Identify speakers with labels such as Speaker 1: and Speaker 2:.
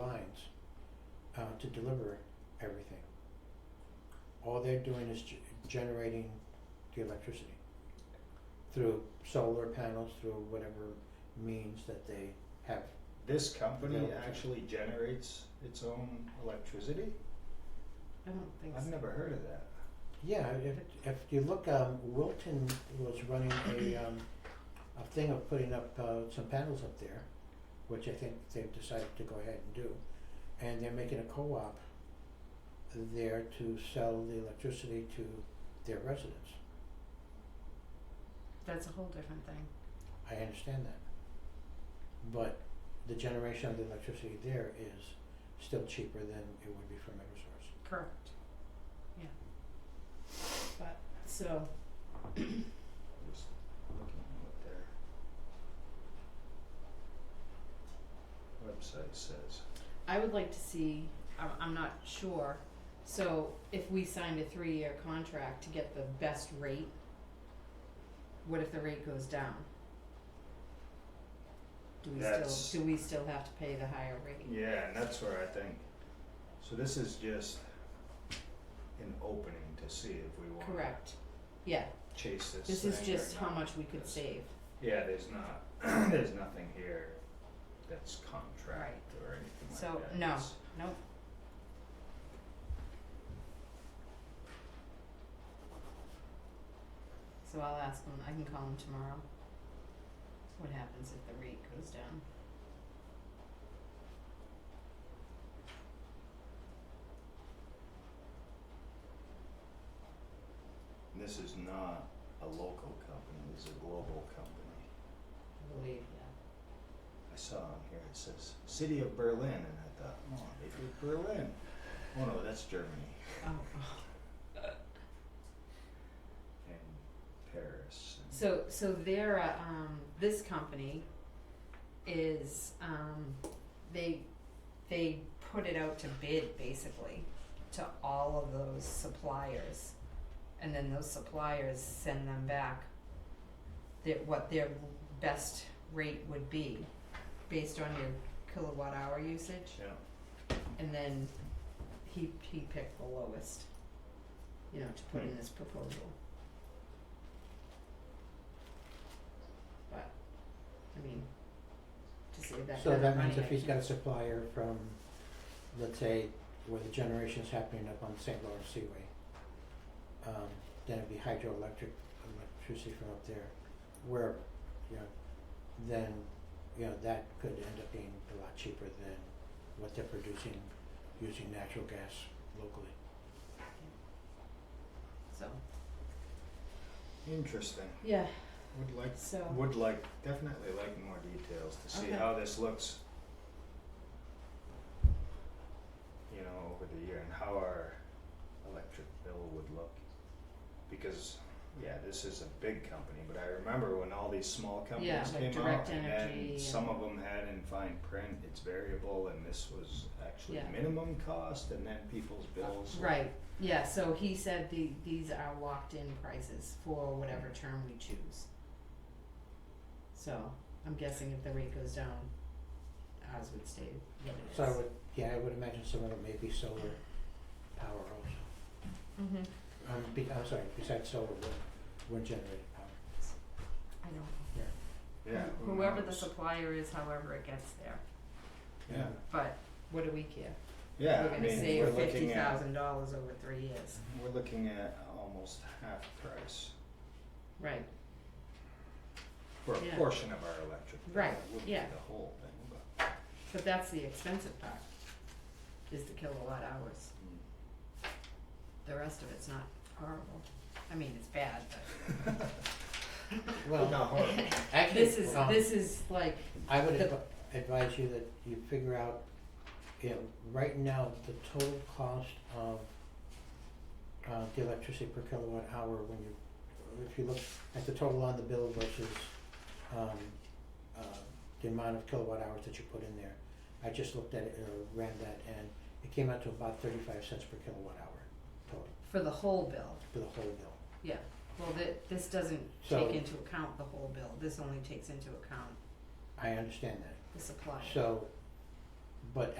Speaker 1: lines uh, to deliver everything. All they're doing is ge- generating the electricity through solar panels, through whatever means that they have.
Speaker 2: This company
Speaker 1: Available.
Speaker 2: actually generates its own electricity?
Speaker 3: I don't think
Speaker 2: I've
Speaker 3: so.
Speaker 2: never heard of that.
Speaker 1: Yeah, if, if you look, um, Wilton was running a, um, a thing of putting up, uh, some panels up there, which I think they've decided to go ahead and do. And they're making a co-op there to sell the electricity to their residents.
Speaker 3: That's a whole different thing.
Speaker 1: I understand that. But the generation of the electricity there is still cheaper than it would be from Eversource.
Speaker 3: Correct. Yeah. But, so,
Speaker 2: Just looking at what their website says.
Speaker 3: I would like to see, I'm, I'm not sure, so if we signed a three-year contract to get the best rate, what if the rate goes down? Do we
Speaker 2: That's-
Speaker 3: still, do we still have to pay the higher rate?
Speaker 2: Yeah, and that's where I think, so this is just an opening to see if we wanna
Speaker 3: Correct. Yeah,
Speaker 2: chase this
Speaker 3: this is
Speaker 2: thing or
Speaker 3: just how
Speaker 2: not.
Speaker 3: much we could
Speaker 2: This-
Speaker 3: save.
Speaker 2: Yeah, there's not, there's nothing here that's contract
Speaker 3: Right.
Speaker 2: or anything like that.
Speaker 3: So, no,
Speaker 2: It's-
Speaker 3: nope. So I'll ask him, I can call him tomorrow. What happens if the rate goes down?
Speaker 2: This is not a local company, this is a global company.
Speaker 3: I believe, yeah.
Speaker 2: I saw on here, it says City of Berlin, and I thought, oh, maybe Berlin. Oh no, that's Germany
Speaker 3: Oh,
Speaker 2: and Paris. And
Speaker 3: so, so they're, a, um, this company is, um, they, they put it out to bid basically to all of those suppliers. And then those suppliers send them back their, what their best rate would be based on your kilowatt hour usage.
Speaker 2: Yeah.
Speaker 3: And then he, he picked the lowest, you know, to put in this proposal. But, I mean, to save that
Speaker 1: So
Speaker 3: kind of
Speaker 1: that
Speaker 3: money,
Speaker 1: means if
Speaker 3: I
Speaker 1: he's got
Speaker 3: can't-
Speaker 1: a supplier from, let's say, where the generation's happening up on St. Lawrence Seaway, um, then it'd be hydroelectric, electricity from up there, where, you know, then, you know, that could end up being a lot cheaper than what they're producing using natural gas locally.
Speaker 3: So,
Speaker 2: Interesting.
Speaker 3: yeah,
Speaker 2: Would like,
Speaker 3: so,
Speaker 2: would like, definitely like more details to see
Speaker 3: Okay.
Speaker 2: how this looks. You know, over the year and how our electric bill would look. Because, yeah, this is a big company, but I remember when all these small
Speaker 3: Yeah,
Speaker 2: companies
Speaker 3: like
Speaker 2: came out
Speaker 3: Direct
Speaker 2: and
Speaker 3: Energy
Speaker 2: then
Speaker 3: and-
Speaker 2: some of them had in fine print, it's variable and this was actually
Speaker 3: Yeah.
Speaker 2: minimum cost and then people's bills. were-
Speaker 3: right, yeah, so he said the, these are locked-in prices for whatever term we choose. So, I'm guessing if the rate goes down, ours would stay what it is.
Speaker 1: So I would, yeah, I would imagine some of it may be solar power also,
Speaker 3: Mhm.
Speaker 1: um, be, I'm sorry, besides solar, wind, wind generated power.
Speaker 3: I don't know.
Speaker 2: Yeah. who
Speaker 3: Whoever the
Speaker 2: knows?
Speaker 3: supplier is, however it gets there,
Speaker 2: Yeah,
Speaker 3: but what do we care?
Speaker 2: yeah, I
Speaker 3: We're gonna
Speaker 2: mean,
Speaker 3: save
Speaker 2: we're
Speaker 3: fifty
Speaker 2: looking at,
Speaker 3: thousand dollars over three years,
Speaker 2: we're looking at almost half price.
Speaker 3: right,
Speaker 2: for a
Speaker 3: Yeah.
Speaker 2: portion of our electric bill.
Speaker 3: Right,
Speaker 2: It wouldn't be
Speaker 3: yeah.
Speaker 2: the whole thing, but.
Speaker 3: but that's the expensive part, is the kilowatt hours, the rest of it's not horrible, I mean, it's bad,
Speaker 1: Well,
Speaker 2: Not horrible.
Speaker 3: but
Speaker 1: actually,
Speaker 3: this is,
Speaker 1: um,
Speaker 3: this is like,
Speaker 1: I would
Speaker 3: The-
Speaker 1: advi- advise you that you figure out, you know, right now, the total cost of uh the electricity per kilowatt hour when you, if you look at the total on the bill versus um uh the amount of kilowatt hours that you put in there. I just looked at it, uh ran that and it came out to about thirty five cents per kilowatt hour total
Speaker 3: for the whole bill,
Speaker 1: for the whole bill.
Speaker 3: yeah, well, thi- this doesn't
Speaker 1: So-
Speaker 3: take into account the whole bill, this only takes into account
Speaker 1: I understand that.
Speaker 3: the supplier.
Speaker 1: So, but